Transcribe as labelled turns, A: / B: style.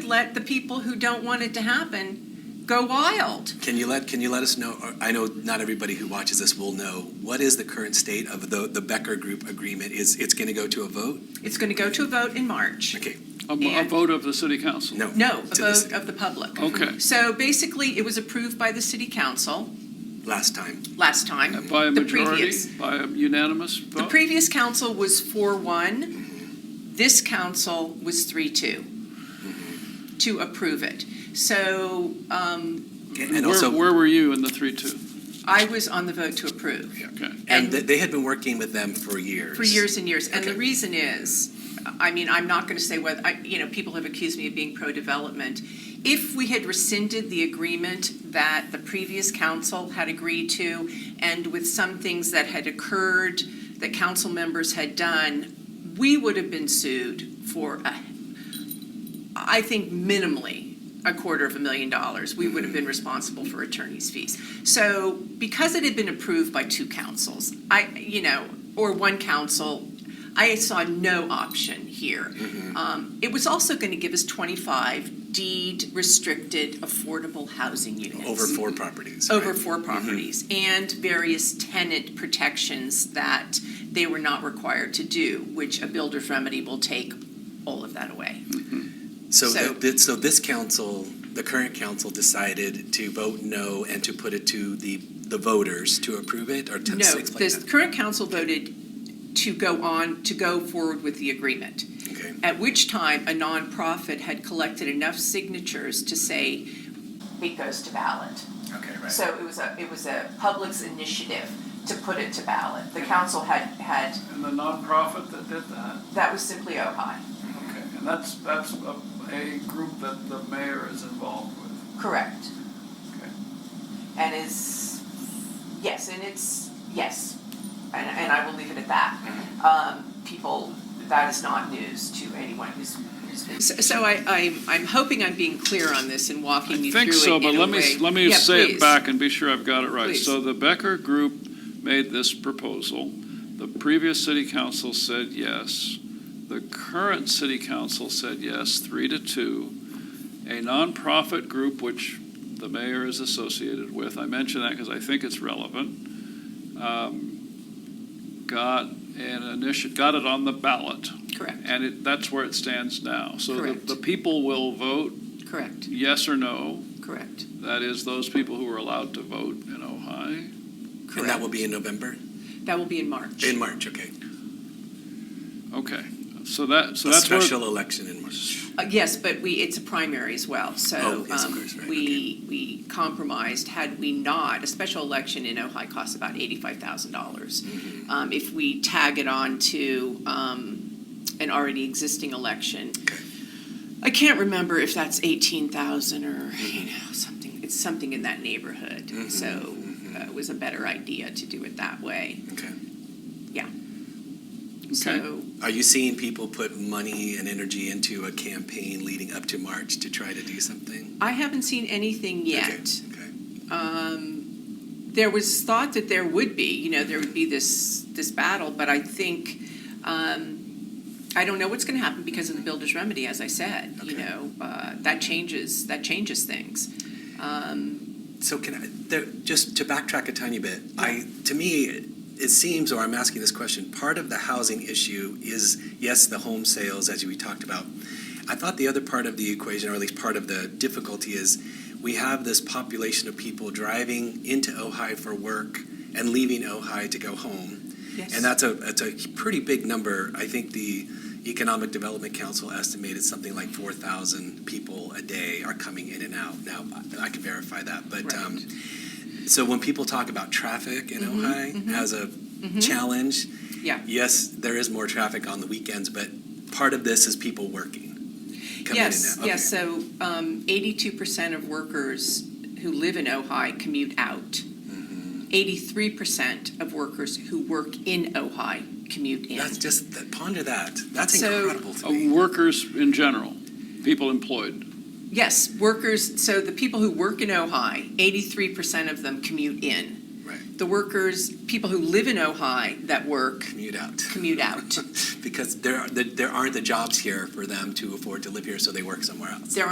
A: let the people who don't want it to happen go wild.
B: Can you let, can you let us know, or I know not everybody who watches this will know, what is the current state of the, the Becker Group agreement? Is, it's going to go to a vote?
A: It's going to go to a vote in March.
B: Okay,
C: A, a
A: And-
C: vote of the city council?
B: no.
A: No, a
B: To this-
A: vote of the public.
C: Okay.
A: So basically, it was approved by the city council
B: Last time.
A: last time.
C: Uh, By a
A: The
C: majority,
A: previous.
C: by a unanimous
A: The
C: vote?
A: previous council was four one, this council was three two to approve it. So um,
B: And
C: Where,
B: also,
C: where were you in the three-two?
A: I was on the vote to approve.
C: Okay.
B: and
A: And
B: th- they had been working with them for years.
A: for years and years. And the
B: Okay.
A: reason is, I mean, I'm not going to say whether, I- you know, people have accused me of being pro-development. If we had rescinded the agreement that the previous council had agreed to, and with some things that had occurred, that council members had done, we would have been sued for, a- I think minimally, a quarter of a million dollars. We would have been responsible for attorney's fees. So because it had been approved by two councils, I, you know, or one council, I saw no option here. Um, It was also going to give us 25 deed-restricted affordable housing units.
B: Over four properties. right?
A: Over four properties, Mm-hmm. and various tenant protections that they were not required to do, which a builder's remedy will take all of that away.
B: So,
A: So-
B: th- th- so this council, the current council decided to vote no and to put it to the, the voters to approve it or to
A: No,
B: explain
A: the
B: that?
A: current council voted to go on, to go forward with the agreement,
B: Okay,
A: at which time a nonprofit had collected enough signatures to say. It goes to ballot.
B: okay, right.
A: So it was a, it was a public's initiative to put it to ballot. The council had, had,
D: And the nonprofit that did that?
A: that was simply Ojai.
D: Okay, and that's, that's a, a group that the mayor is involved with.
A: Correct.
D: Okay.
A: And is, yes, and it's, yes. And, and I will leave it at that. Um, people, that is not news to anyone who's, who's been. So, so I, I'm, I'm hoping I'm being clear on this and
C: I
A: walking you through it in
C: think so, but
A: a
C: let me,
A: way-
C: let me
A: Yeah,
C: say
A: please.
C: it back and be sure I've got it right.
A: Please.
C: So the Becker Group made this proposal. The previous city council said yes. The current city council said yes, three to two. A nonprofit group, which the mayor is associated with, I mention that because I think it's relevant, um, got an initiative, got it on the ballot,
A: Correct,
C: and it, that's where it stands now. So the,
A: Correct.
C: the people will vote
A: correct,
C: yes or no.
A: correct,
C: That is those people who are allowed to vote in Ojai.
B: And that
A: correct.
B: will be in November,
A: That will be in March.
B: in March, okay.
C: Okay, so that, so
B: A
C: that's where.
B: special election in March.
A: Uh, Yes, but we, it's a primary as well, so
B: Oh, yes, of
A: um,
B: course, right,
A: we, we compromised, had we not, a special election in Ojai costs about eighty-five thousand dollars.
B: Mm-hmm.
A: Um, if we tag it on to, um, an already existing election. I can't remember if that's eighteen thousand or, you
B: Mm-hmm.
A: know, something, it's something in that neighborhood, so
B: mm-hmm.
A: uh, it was a better idea to do it that way,
B: Okay.
A: so.
B: Are you seeing people put money and energy into a campaign leading up to March to try to do something?
A: I haven't seen anything
B: Okay,
A: yet.
B: Okay.
A: um, there was thought that there would be, you know, there would be this this battle, but I think um, I don't know what's going to happen because of the builder's remedy, as I said. You
B: Okay.
A: know, uh, that changes that changes things. Um,
B: So can I, there, just to backtrack a tiny bit, I, to me, it seems, or I'm asking this question, part of the housing issue is, yes, the home sales, as we talked about. I thought the other part of the equation, or at least part of the difficulty, is we have this population of people driving into Ojai for work and leaving Ojai to go home.
A: yes.
B: And that's a, that's a pretty big number. I think the Economic Development Council estimated something like four thousand people a day are coming in and out. Now, I can verify that, but, um, so when people talk about traffic in
A: Mm-hmm,
B: Ojai as a challenge,
A: yeah.
B: yes, there is more traffic on the weekends, but part of this is people working. coming in
A: Yes.
B: and out.
A: Yes. So um, 82% of workers who live in Ojai commute out.
B: Mm-hmm.
A: 83% of workers who work in Ojai commute
B: Okay.
A: in.
B: That's just, that- ponder that. That's
A: So-
B: incredible to
C: Uh,
B: me.
C: Workers in general, people employed.
A: Yes, workers, so the people who work in Ojai, eighty-three percent of them commute in.
B: Right.
A: The workers, people who live in Ojai that work
B: Commute out.
A: commute out.
B: because there, are- there there aren't the jobs here for them to afford to live here, so they work somewhere else.
A: There